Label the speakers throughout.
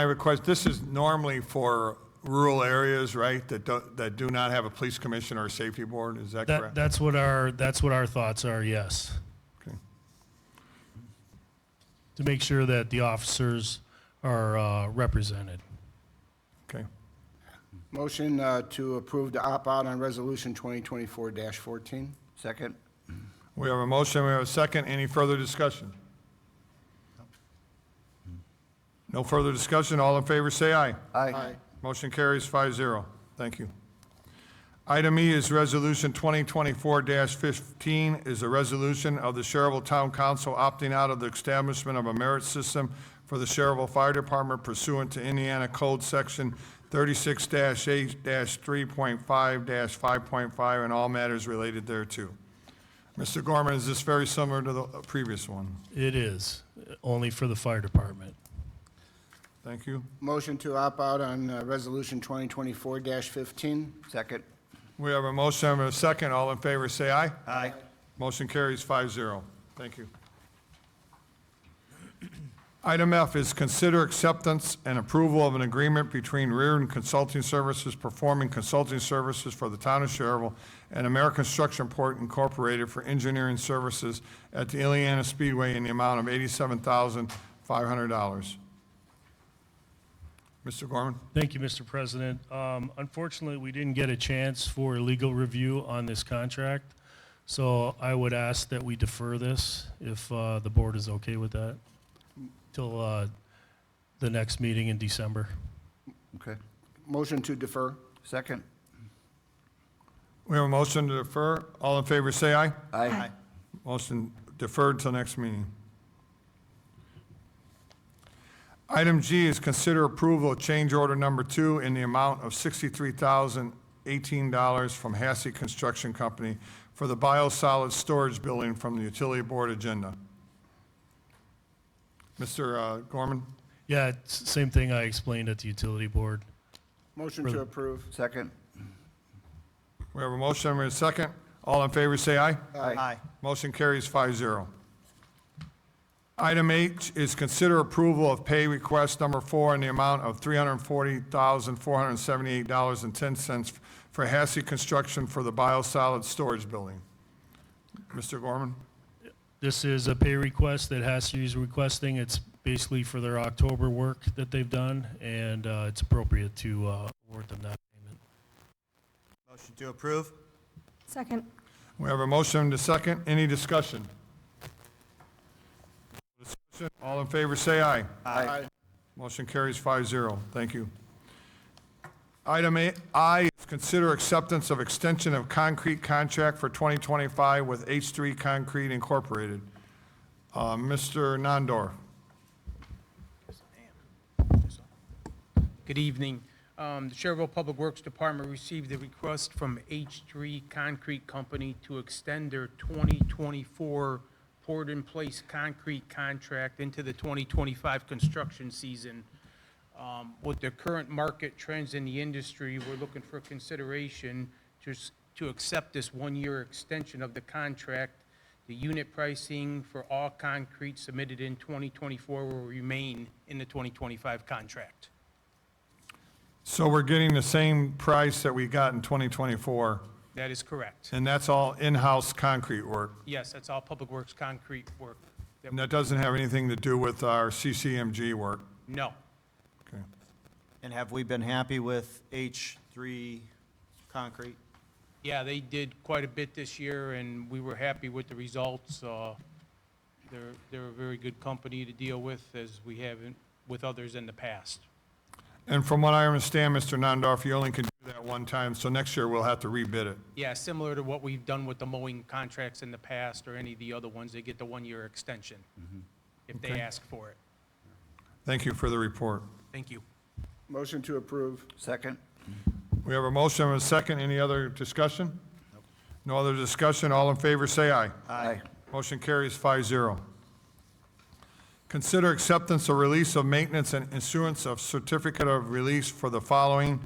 Speaker 1: I request, this is normally for rural areas, right, that do, that do not have a police commissioner or safety board, is that
Speaker 2: That,
Speaker 1: correct?
Speaker 2: that's what our, that's what our thoughts are, yes.
Speaker 1: Okay.
Speaker 2: To make sure that the officers are uh, represented.
Speaker 1: Okay.
Speaker 3: Motion uh, to approve the opt-out on Resolution 2024-14.
Speaker 4: Second?
Speaker 1: We have a motion, we have a second, any further discussion? No further discussion, all in favor say aye.
Speaker 4: Aye.
Speaker 1: Motion carries five zero. Thank you. Item E is Resolution 2024-15 is a resolution of the Sherrville Town Council opting out of the establishment of a merit system for the Sherrville Fire Department pursuant to Indiana Code Section 36-8-3.5-5.5 and all matters related thereto. Mr. Gorman, is this very similar to the previous one?
Speaker 2: It is, uh, only for the fire department.
Speaker 1: Thank you.
Speaker 3: Motion to opt-out on uh, Resolution 2024-15.
Speaker 4: Second?
Speaker 1: We have a motion and a second. All in favor, say aye.
Speaker 4: Aye.
Speaker 1: Motion carries 5-0. Thank you. Item F is consider acceptance and approval of an agreement between Reardon Consulting Services performing consulting services for the town of Sherrville and American Structure Port Incorporated for engineering services at the Ileana Speedway in the amount of eighty-seven thousand five hundred dollars. Mr. Gorman?
Speaker 2: Thank you, Mr. President. Um, Unfortunately, we didn't get a chance for legal review on this contract, so I would ask that we defer this if uh, the board is okay with that, till uh, the next meeting in December.
Speaker 4: Okay.
Speaker 3: Motion to defer.
Speaker 4: Second?
Speaker 1: We have a motion to defer. All in favor, say aye.
Speaker 4: Aye.
Speaker 1: Motion deferred till next meeting. Item G is consider approval of change order number two in the amount of $63,018 from Hassey Construction Company for the biosolids storage building from the utility board agenda. Mr. uh, Gorman?
Speaker 2: Yeah, it's same thing I explained at the utility board.
Speaker 3: Motion to approve.
Speaker 4: Second?
Speaker 1: We have a motion, we have a second. All in favor, say aye.
Speaker 4: Aye.
Speaker 1: Motion carries 5-0. Item H is consider approval of pay request number four in the amount of three hundred and forty thousand, four hundred and seventy-eight dollars and ten cents for Hassey Construction for the biosolids storage building. Mr. Gorman?
Speaker 2: This is a pay request that Hassey is requesting. It's basically for their October work that they've done, and uh, it's appropriate to uh, award them that payment.
Speaker 5: Motion to approve?
Speaker 6: Second.
Speaker 1: We have a motion and a second. Any discussion? Discussion? All in favor, say aye.
Speaker 4: Aye.
Speaker 1: Motion carries 5-0. Thank you. Item A- I is consider acceptance of extension of concrete contract for 2025 with H3 Concrete Incorporated. Uh, Mr. Nandor.
Speaker 7: Good evening. Um, The Sherrville Public Works Department received a request from H3 Concrete Company to extend their 2024 poured-in-place concrete contract into the 2025 construction season. Um, With the current market trends in the industry, we're looking for consideration to s- to accept this one-year extension of the contract. The unit pricing for all concrete submitted in 2024 will remain in the 2025 contract.
Speaker 1: So we're getting the same price that we got in 2024,
Speaker 7: That is correct.
Speaker 1: and that's all in-house concrete work.
Speaker 7: Yes, that's all Public Works concrete work. that-
Speaker 1: And that doesn't have anything to do with our CCMG work.
Speaker 7: No,
Speaker 1: Okay.
Speaker 5: And have we been happy with H3 concrete?
Speaker 7: yeah, they did quite a bit this year, and we were happy with the results. Uh, They're, they're a very good company to deal with, as we have in- with others in the past.
Speaker 1: And from what I understand, Mr. Nandorf, you only can do that one time, so next year we'll have to rebid it.
Speaker 7: Yeah, similar to what we've done with the mowing contracts in the past, or any of the other ones, they get the one-year extension if they ask for it.
Speaker 1: Thank you for the report.
Speaker 7: Thank you.
Speaker 3: Motion to approve.
Speaker 4: Second?
Speaker 1: We have a motion and a second. Any other discussion? No other discussion. All in favor, say aye.
Speaker 4: Aye.
Speaker 1: Motion carries 5-0. Consider acceptance or release of maintenance and issuance of certificate of release for the following: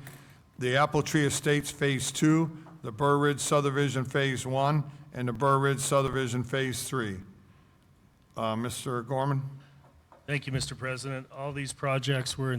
Speaker 1: the Apple Tree Estates Phase Two, the Burr Ridge subdivision Phase One, and the Burr Ridge subdivision Phase Three. Uh, Mr. Gorman?
Speaker 2: Thank you, Mr. President. All these projects were in